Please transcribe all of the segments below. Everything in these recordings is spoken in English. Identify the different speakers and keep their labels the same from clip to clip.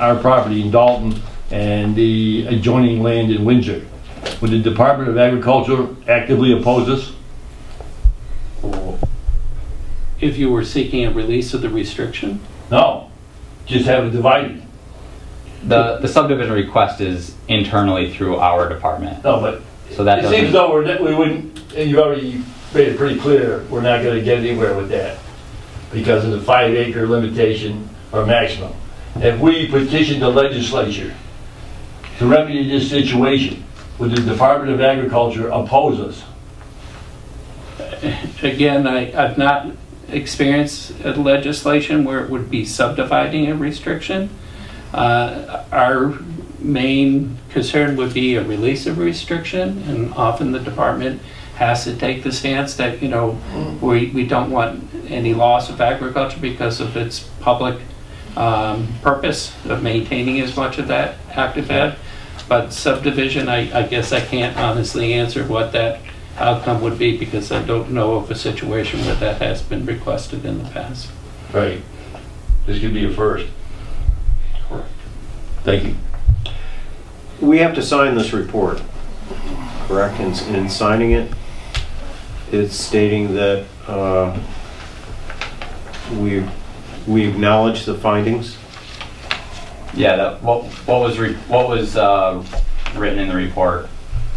Speaker 1: our property in Dalton and the adjoining land in Windsor. Would the Department of Agriculture actively oppose us?
Speaker 2: If you were seeking a release of the restriction?
Speaker 1: No, just have it divided.
Speaker 3: The, the subdivision request is internally through our department,
Speaker 1: No, but
Speaker 3: so that
Speaker 1: it seems
Speaker 3: doesn't,
Speaker 1: though we're, that we wouldn't, and you already made it pretty clear, we're not gonna get anywhere with that because of the five acre limitation or maximum. If we petitioned the legislature to remedy this situation, would the Department of Agriculture oppose us?
Speaker 2: Again, I, I've not experienced a legislation where it would be subdividing a restriction. Uh, Our main concern would be a release of restriction, and often the department has to take the stance that, you know, we, we don't want any loss of agriculture because of its public um, purpose of maintaining as much of that active ed. But subdivision, I, I guess I can't honestly answer what that outcome would be because I don't know of a situation where that has been requested in the past.
Speaker 1: Right. This could be a first.
Speaker 2: Correct.
Speaker 1: Thank you.
Speaker 4: We have to sign this report, correct? And and in signing it, it's stating that uh, we we acknowledge the findings.
Speaker 3: yeah, that, what, what was, re- what was, uh, written in the report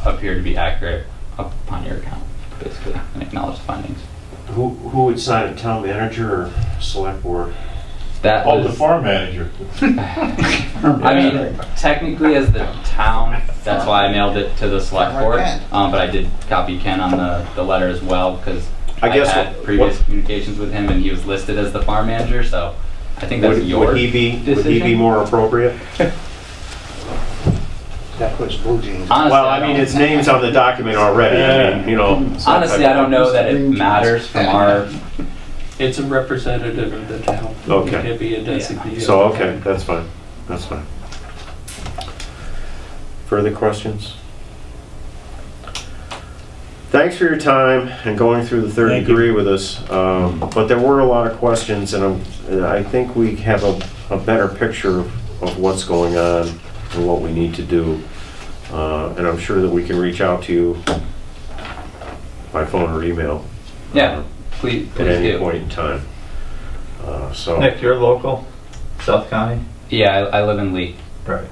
Speaker 3: appeared to be accurate upon your account, basically, and acknowledge the findings.
Speaker 4: Who who would sign it, town manager or select board?
Speaker 3: That
Speaker 5: Oh, the
Speaker 3: was,
Speaker 5: farm manager.
Speaker 3: I mean, technically as the town, that's why I mailed it to the select board, um, but I did copy Ken on the, the letter as well, because
Speaker 4: I
Speaker 3: I
Speaker 4: guess
Speaker 3: had
Speaker 4: what-
Speaker 3: previous
Speaker 4: what-
Speaker 3: communications with him and he was listed as the farm manager, so I think that's
Speaker 4: Would
Speaker 3: your
Speaker 4: would he be, would he be
Speaker 3: decision?
Speaker 4: more appropriate?
Speaker 6: That puts blue jeans.
Speaker 3: Honestly,
Speaker 4: Well, I mean,
Speaker 3: don't-
Speaker 4: his name's on the document already, I mean, you know. so-
Speaker 3: Honestly, I don't know that it matters from our,
Speaker 2: It's a representative of the town.
Speaker 4: Okay.
Speaker 2: It'd be a designee.
Speaker 4: So, okay, that's fine, that's fine. Further questions? Thanks for your time and going through the third
Speaker 1: Thank you.
Speaker 4: degree with us. Um, But there were a lot of questions, and I'm- and I think we have a, a better picture of of what's going on and what we need to do. Uh, And I'm sure that we can reach out to you by phone or email
Speaker 3: yeah, please,
Speaker 4: at
Speaker 3: please
Speaker 4: Uh, any
Speaker 3: do.
Speaker 4: point in time. Uh, So.
Speaker 7: Nick, you're local, South County?
Speaker 3: Yeah, I, I live in Lee,
Speaker 7: Right.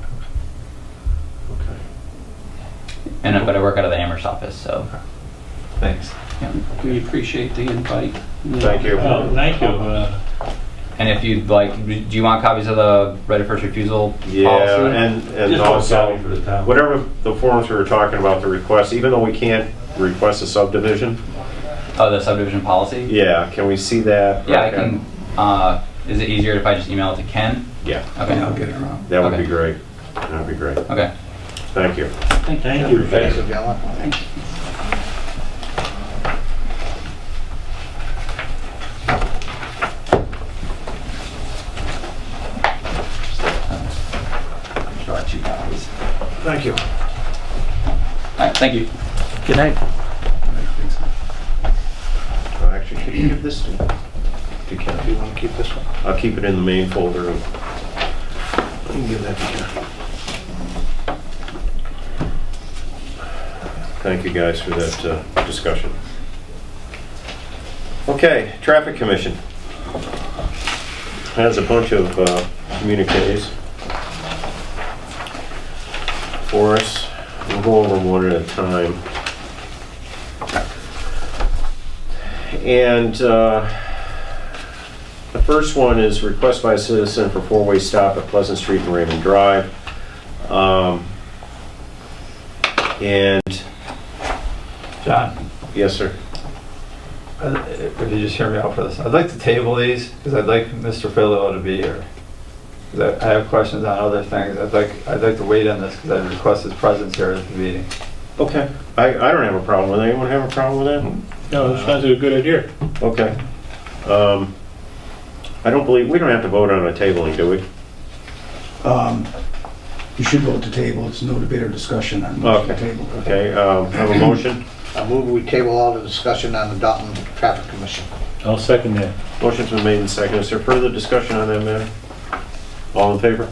Speaker 4: okay.
Speaker 3: and, but I work out of the Amherst office, so.
Speaker 7: Thanks.
Speaker 2: We appreciate the invite.
Speaker 4: Thank you.
Speaker 1: Um,
Speaker 5: Oh, thank you. Uh,
Speaker 3: And if you'd like, do you want copies of the right of first refusal policy?
Speaker 4: Yeah, and, and
Speaker 1: Just one copy
Speaker 4: also,
Speaker 1: for the town.
Speaker 4: whatever the forms we were talking about, the request, even though we can't request a subdivision,
Speaker 3: Oh, the subdivision policy?
Speaker 4: yeah, can we see that?
Speaker 3: Yeah, I can, uh, is it easier if I just email it to Ken?
Speaker 4: Yeah,
Speaker 3: Okay,
Speaker 2: get around.
Speaker 4: that would be
Speaker 3: Okay.
Speaker 4: great. That'd be great.
Speaker 3: okay.
Speaker 4: Thank you.
Speaker 5: Thank you.
Speaker 6: Thanks, Gavin.
Speaker 4: Thank you.
Speaker 3: All right, thank you.
Speaker 2: Good night.
Speaker 4: Actually, could you give this to, to Ken?
Speaker 6: You want to keep this one?
Speaker 4: I'll keep it in the main folder. and- I can give that to Ken. Thank you guys for that uh, discussion. Okay, Traffic Commission. Has a bunch of uh, communiques for us. We'll go over them one at a time. And uh, the first one is request by a citizen for four-way stop at Pleasant Street and Raymond Drive. Um, And,
Speaker 7: John,
Speaker 4: yes, sir.
Speaker 7: uh, if you just hear me out for this, I'd like to table these because I'd like Mr. Philo to be here. 'Cause I I have questions on other things. I'd like, I'd like to wait on this because I request his presence here at the meeting.
Speaker 4: Okay, I, I don't have a problem with it. Anyone have a problem with
Speaker 5: No, that sounds like a good idea.
Speaker 4: that? Okay. Um, I don't believe, we don't have to vote on a tabling, do we?
Speaker 6: Um, You should vote to table, it's no debate or discussion on motion to
Speaker 4: Okay.
Speaker 6: table.
Speaker 4: Okay, um, have a motion?
Speaker 6: I move we table all the discussion on the Dalton Traffic Commission.
Speaker 5: I'll second that.
Speaker 4: Motion's been made and seconded. Is there further discussion on that matter? All in favor?